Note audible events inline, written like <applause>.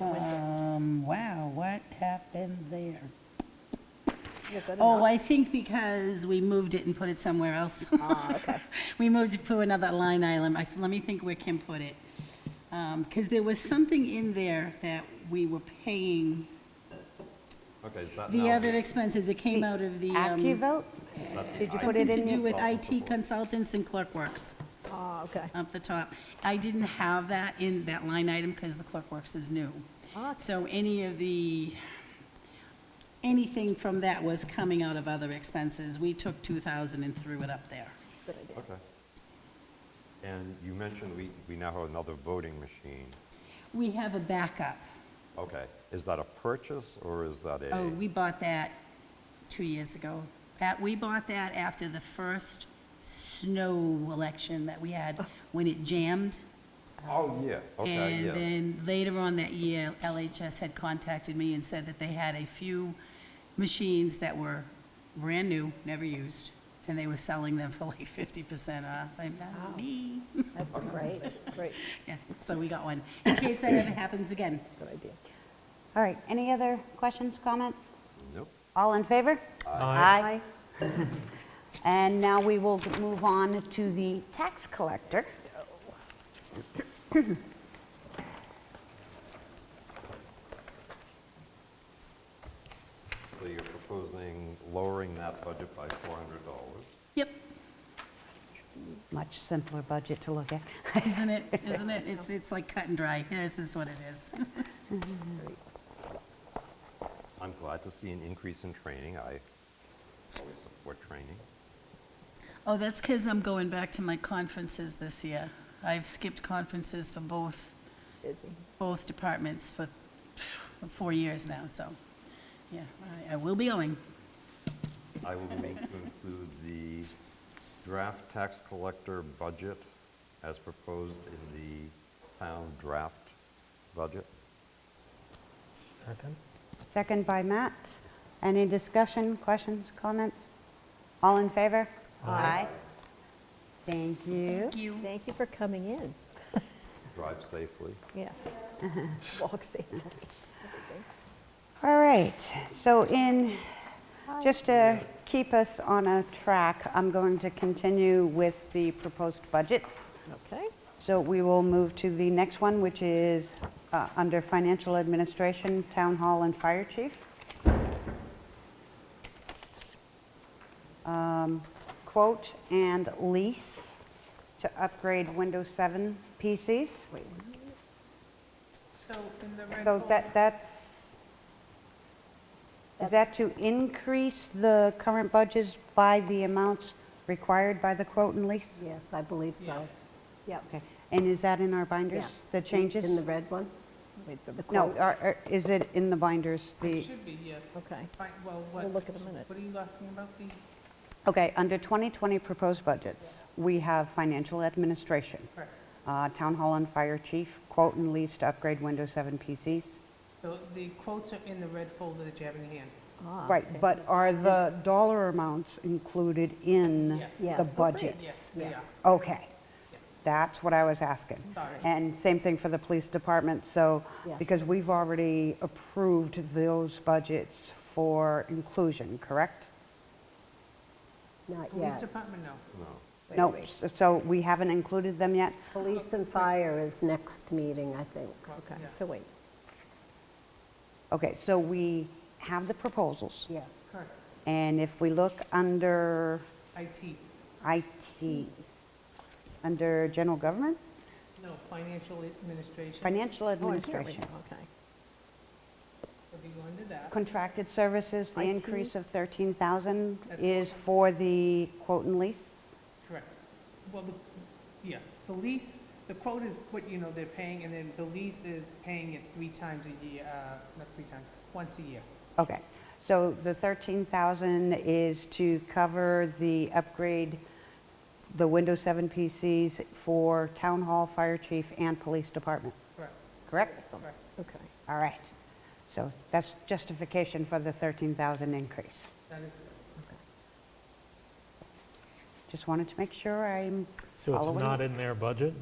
Um, Was that Oh, enough? I think because we moved it and put it somewhere else. Ah, okay. <laughs> We moved it to another line item. I- Let me think where Kim put it. Because there was something in there that we were paying, Okay, is that the now- other expenses that came out of the, um, AccuVote? is that the Did you put something it to in do your, with IT consultants and clerk works Ah, okay. up the top. I didn't have that in that line item because the clerk works is new. Ah, So any of the, anything from that was coming out of other expenses. We took 2,000 and threw it up there. good idea. Okay. And you mentioned we, we now have another voting machine. We have a backup. Okay, is that a purchase or is that a? Oh, we bought that two years ago. That, we bought that after the first snow election that we had, when it jammed. Oh, yeah, okay, yes. And then later on that year, LHS had contacted me and said that they had a few machines that were brand new, never used, and they were selling them for like fifty percent off. I'm not me. That's great, great, Yeah, so we got one, in case that ever happens again. good idea. all right, any other questions, comments? Nope. All in favor? Aye. <laughs> And now we will move on to the tax collector. So you're proposing lowering that budget by four hundred dollars. Yep, Much simpler budget to look at. <laughs> isn't it, isn't it? It's, it's like cut and dry. This is what it is. I'm glad to see an increase in training. I always support training. Oh, that's because I'm going back to my conferences this year. I've skipped conferences for both, Busy. both departments for four years now, so, yeah, I, I will be going. I will move to include the draft tax collector budget as proposed in the town draft budget. Second? Second by Matt. Any discussion, questions, comments? All in favor? Aye. Thank you. Thank you. Thank you for coming in. Drive safely. <laughs> Yes. Walk safely. All right, so in, just to keep us on a track, I'm going to continue with the proposed budgets. Okay, So we will move to the next one, which is uh, under Financial Administration, Town Hall, and Fire Chief. Um, Quote and lease to upgrade Windows 7 PCs. So in the So rental, that, that's, is that to increase the current budgets by the amounts required by the quote and lease? yes, I believe so. Yep. Okay, and is that in our binders, Yes. the In- changes? In the red one? With the No, quote? are- are- is it in the binders, it the, should be, yes. Okay. Fine, Well, what? We'll look in a minute. What are you asking about the, okay, under 2020 proposed budgets, we have financial administration, correct. uh, town hall and fire chief, quote and lease to upgrade Windows 7 PCs. So the quotes are in the red folder that you have in your hand. Ah, okay. Right, but are the dollar amounts included in Yes. Yes. the Oh, budgets? Yes, they are. Yes. Okay. That's what I was asking. Sorry. And same thing for the police department, so, Yes. because we've already approved those budgets for inclusion, correct? Not Police yet. department, no. No. Wait, No, wait. s- so we haven't included them yet? Police and fire is next meeting, I think. Well, Okay, yeah. so wait, Okay, so we have the proposals, yes. Correct. and if we look under IT, IT, under general government, no, financial administration. financial Oh, I hear we- administration, Okay. If you go into that, contracted services, the IT. increase of 13,000 That's is for the quote and lease? correct. Well, the, yes, the lease, the quote is what, you know, they're paying, and then the lease is paying it three times a year, uh, not three times, once a year. Okay, so the 13,000 is to cover the upgrade, the Windows 7 PCs for Town Hall, Fire Chief, and Police Department, Correct, correct? correct. Okay. All right, so that's justification for the 13,000 increase. That is, Just wanted to make sure I'm So following. it's not in their budget?